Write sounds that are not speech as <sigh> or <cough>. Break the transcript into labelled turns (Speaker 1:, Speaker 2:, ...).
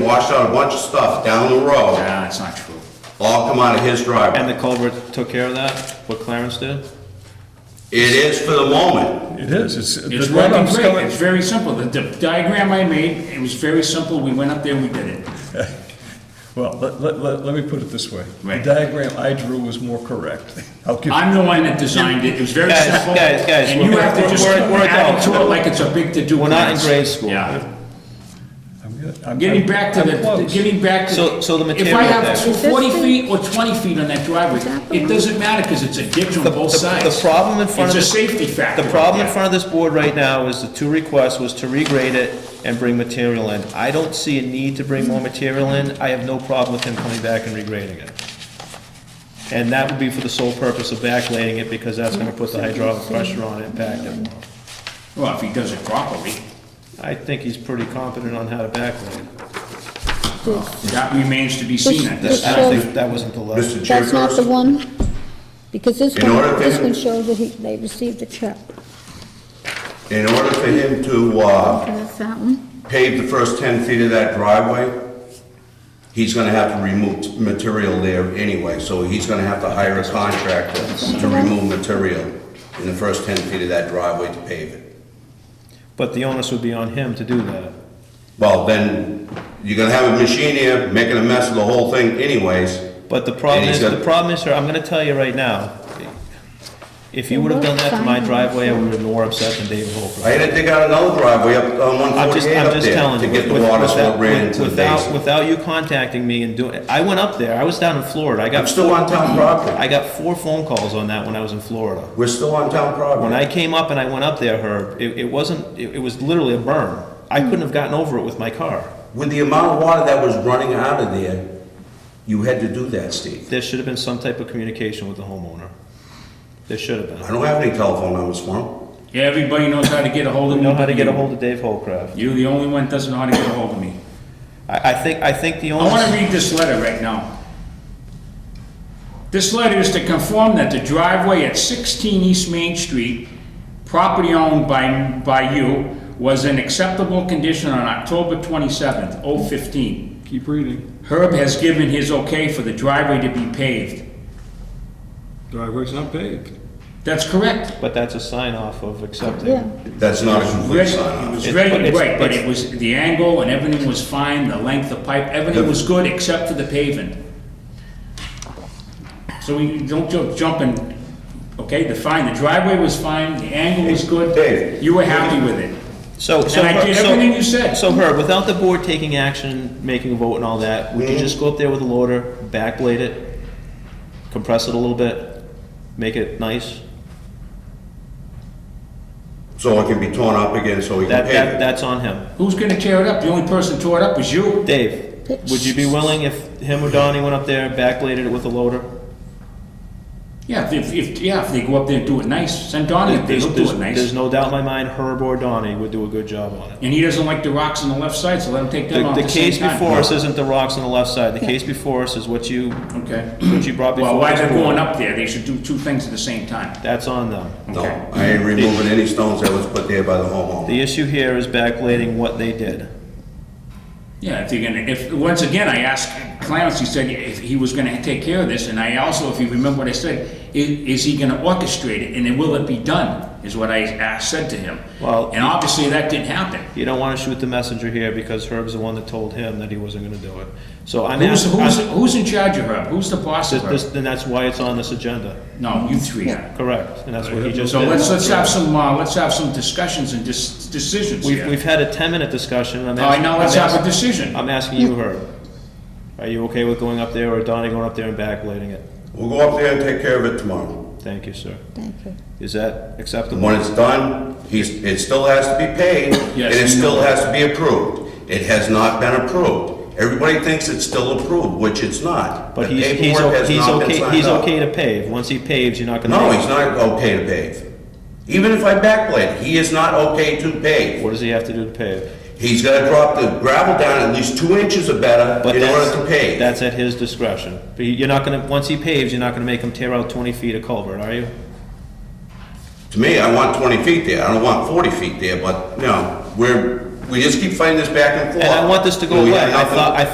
Speaker 1: washed out a bunch of stuff down the road,
Speaker 2: Nah, it's not true.
Speaker 1: all come out of his
Speaker 3: And
Speaker 1: driveway.
Speaker 3: the culvert took care of that, what Clarence did?
Speaker 1: It is for the moment,
Speaker 4: It is, it's. the
Speaker 2: It's working
Speaker 4: runoff's
Speaker 2: great,
Speaker 4: coming-
Speaker 2: it's very simple. The the diagram I made, it was very simple, we went up there, we did it.
Speaker 4: Well, let, let, let, let me put it this way. The
Speaker 2: Right.
Speaker 4: diagram I drew was more correct. <laughs> I'll give,
Speaker 2: I'm the one that designed it, it was very
Speaker 3: Guys,
Speaker 2: simple.
Speaker 3: guys, guys,
Speaker 2: And you
Speaker 3: we're-
Speaker 2: have to just
Speaker 3: we're- we're
Speaker 2: add
Speaker 3: adults.
Speaker 2: to it like it's a big to-do.
Speaker 3: We're not in
Speaker 2: class.
Speaker 3: grade school.
Speaker 2: Yeah.
Speaker 4: I'm gonna- I'm.
Speaker 2: Getting back to
Speaker 4: I'm
Speaker 2: the,
Speaker 4: close.
Speaker 2: getting back to.
Speaker 3: So- so the
Speaker 2: If I
Speaker 3: material
Speaker 2: have
Speaker 3: there.
Speaker 2: tw- forty
Speaker 5: This thing-
Speaker 2: feet or twenty feet on that driveway,
Speaker 5: that the
Speaker 2: it
Speaker 5: one?
Speaker 2: doesn't matter, because it's a ditch on
Speaker 3: The-
Speaker 2: both
Speaker 3: the-
Speaker 2: sides.
Speaker 3: The problem in front of.
Speaker 2: It's a
Speaker 3: this-
Speaker 2: safety factor.
Speaker 3: The problem in
Speaker 2: right
Speaker 3: front of this board right now is the two requests was to regrade it and bring material in. I don't see a need to bring more material in. I have no problem with him coming back and regrading it. And that would be for the sole purpose of backlaying it, because that's gonna put the hydraulic pressure on it and pack it.
Speaker 2: there. Well, if he does it properly,
Speaker 3: I think he's pretty competent on how to backlay it.
Speaker 1: Uh,
Speaker 5: This-
Speaker 2: that remains to be seen at this
Speaker 3: I
Speaker 2: time.
Speaker 3: don't think, that wasn't the level.
Speaker 1: Mr.
Speaker 5: That's not the
Speaker 1: Chairperson.
Speaker 5: one? Because this
Speaker 1: In order
Speaker 5: one, this
Speaker 1: to-
Speaker 5: one shows that he, they received a check.
Speaker 1: In order for him to, uh,
Speaker 5: Okay, That's that one.
Speaker 1: pave the first 10 feet of that driveway, he's gonna have to remove t- material there anyway, so he's gonna have to hire a contractor to remove material in the first 10 feet of that driveway to pave it.
Speaker 3: But the onus would be on him to do that.
Speaker 1: Well, then, you're gonna have a machine here making a mess of the whole thing anyways.
Speaker 3: But the problem
Speaker 1: And he's
Speaker 3: is, the
Speaker 1: got-
Speaker 3: problem is, sir, I'm gonna tell you right now, if you would have done that to my driveway, I would have been more upset than David Holcroft.
Speaker 1: I had to dig out another driveway up on
Speaker 3: I'm just,
Speaker 1: 148
Speaker 3: I'm
Speaker 1: up
Speaker 3: just
Speaker 1: there
Speaker 3: telling
Speaker 1: to
Speaker 3: you.
Speaker 1: get the
Speaker 3: with-
Speaker 1: water
Speaker 3: with-
Speaker 1: so it ran
Speaker 3: with-
Speaker 1: into the
Speaker 3: without-
Speaker 1: basin.
Speaker 3: Without you contacting me and doing, I went up there, I was down in Florida, I
Speaker 1: I'm
Speaker 3: got,
Speaker 1: still on town property.
Speaker 3: I got four phone calls on that when I was in Florida.
Speaker 1: We're still on town
Speaker 3: When
Speaker 1: property.
Speaker 3: I came up and I went up there, Herb, it, it wasn't, it, it was literally a burn. I couldn't have gotten over it with my car.
Speaker 1: With the amount of water that was running out of there, you had to do that, Steve.
Speaker 3: There should have been some type of communication with the homeowner. There should have
Speaker 1: I
Speaker 3: been.
Speaker 1: don't have any telephone numbers for him.
Speaker 2: Yeah, Everybody knows how to get a hold of
Speaker 3: You
Speaker 2: me.
Speaker 3: know how to
Speaker 2: but
Speaker 3: get a
Speaker 2: you-
Speaker 3: hold of Dave Holcraft.
Speaker 2: You're the only one that doesn't know how to get a hold of me.
Speaker 3: I, I think, I think the
Speaker 2: I want to
Speaker 3: only,
Speaker 2: read this letter right now. This letter is to confirm that the driveway at 16 East Main Street, property owned by, by you, was in acceptable condition on October 27th, 015.
Speaker 4: Keep reading.
Speaker 2: Herb has given his okay for the driveway to be paved.
Speaker 4: Driveway's not paved.
Speaker 2: That's correct.
Speaker 3: but that's a sign off of
Speaker 5: Yeah.
Speaker 3: accepting.
Speaker 1: That's not a complete
Speaker 2: Ready-
Speaker 1: sign
Speaker 2: It
Speaker 1: off.
Speaker 2: was
Speaker 3: It's-
Speaker 2: ready,
Speaker 3: but it's-
Speaker 2: right, but
Speaker 3: it's-
Speaker 2: it was, the angle and everything was fine, the length of pipe, everything
Speaker 1: The-
Speaker 2: was good except for the paving. So we don't ju- jump in, okay, the fine, the driveway was fine, the angle was good.
Speaker 1: Dave.
Speaker 2: You were happy with it.
Speaker 3: So, so.
Speaker 2: And I did
Speaker 3: so-
Speaker 2: everything you said.
Speaker 3: So Herb, without the board taking action, making a vote and all that, would you just go up there with a loader, backblade it, compress it a little bit, make it nice?
Speaker 1: So it can be torn up again, so we can
Speaker 3: That, that,
Speaker 1: pave it.
Speaker 3: that's on him.
Speaker 2: Who's gonna tear it up? The only person tore it up was you.
Speaker 3: Dave, would you be willing if him or Donnie went up there, backbladed it with a loader?
Speaker 2: Yeah, if, if, yeah, if they go up there and do it nice, send Donnie up there,
Speaker 3: There's,
Speaker 2: he'll do
Speaker 3: there's-
Speaker 2: it
Speaker 3: there's
Speaker 2: nice.
Speaker 3: no doubt in my mind Herb or Donnie would do a good job on it.
Speaker 2: And he doesn't like the rocks on the left side, so let him take them
Speaker 3: The,
Speaker 2: off
Speaker 3: the
Speaker 2: at the same
Speaker 3: case
Speaker 2: time.
Speaker 3: before us isn't the rocks on the left side, the case before us is what you,
Speaker 2: Okay.
Speaker 3: what you brought before.
Speaker 2: Well, while
Speaker 3: this
Speaker 2: they're
Speaker 3: board.
Speaker 2: going up there, they should do two things at the same time.
Speaker 3: That's on them.
Speaker 1: No,
Speaker 2: Okay.
Speaker 1: I ain't removing any stones that was put there by the homeowner.
Speaker 3: The issue here is backblading what they did.
Speaker 2: Yeah, if you're gonna, if, once again, I asked Clarence, he said if he was gonna take care of this, and I also, if you remember what I said, i- is he gonna orchestrate it, and then will it be done, is what I asked, said to him.
Speaker 3: Well-
Speaker 2: And obviously, that didn't happen.
Speaker 3: You don't wanna shoot the messenger here because Herb's the one that told him that he wasn't gonna do it. So I'm
Speaker 2: Who's,
Speaker 3: asking,
Speaker 2: who's, who's in charge of her? Who's the boss of her?
Speaker 3: then that's why it's on this agenda,
Speaker 2: No, you three are.
Speaker 3: correct? And that's what he just
Speaker 2: So
Speaker 3: did.
Speaker 2: let's, let's have some, uh, let's have some discussions and dis- decisions
Speaker 3: We've,
Speaker 2: here.
Speaker 3: we've had a ten-minute discussion, I'm
Speaker 2: All right,
Speaker 3: asking.
Speaker 2: now let's
Speaker 3: I'm
Speaker 2: have a
Speaker 3: asking-
Speaker 2: decision.
Speaker 3: I'm asking you, Herb. Are you okay with going up there or Donnie going up there and backblading it?
Speaker 1: We'll go up there and take care of it tomorrow.
Speaker 3: Thank you, sir.
Speaker 5: Thank you.
Speaker 3: Is that acceptable?
Speaker 1: When it's done, he's, it still has to be paid, and
Speaker 2: Yes,
Speaker 1: it
Speaker 2: we
Speaker 1: still
Speaker 2: know.
Speaker 1: has to be approved. It has not been approved. Everybody thinks it's still approved, which it's not.
Speaker 3: But
Speaker 1: The
Speaker 3: he's, he's,
Speaker 1: paperwork
Speaker 3: o-
Speaker 1: has
Speaker 3: he's
Speaker 1: not been
Speaker 3: okay,
Speaker 1: signed
Speaker 3: he's
Speaker 1: up.
Speaker 3: okay to pave. Once he paves, you're not gonna.
Speaker 1: No,
Speaker 3: make-
Speaker 1: he's not okay to pave. Even if I backblade, he is not okay to pave.
Speaker 3: What does he have to do to pave?
Speaker 1: He's gotta drop the gravel down at least two inches or better
Speaker 3: But
Speaker 1: in order
Speaker 3: that's-
Speaker 1: to pave.
Speaker 3: That's at his discretion. But you're not gonna, once he paves, you're not gonna make him tear out twenty feet of culvert, are you?
Speaker 1: To me, I want twenty feet there, I don't want forty feet there, but, you know, we're, we just keep fighting this back and forth.
Speaker 3: And I want this to go
Speaker 1: We
Speaker 3: away.
Speaker 1: have
Speaker 3: I
Speaker 1: nothing-
Speaker 3: thought, I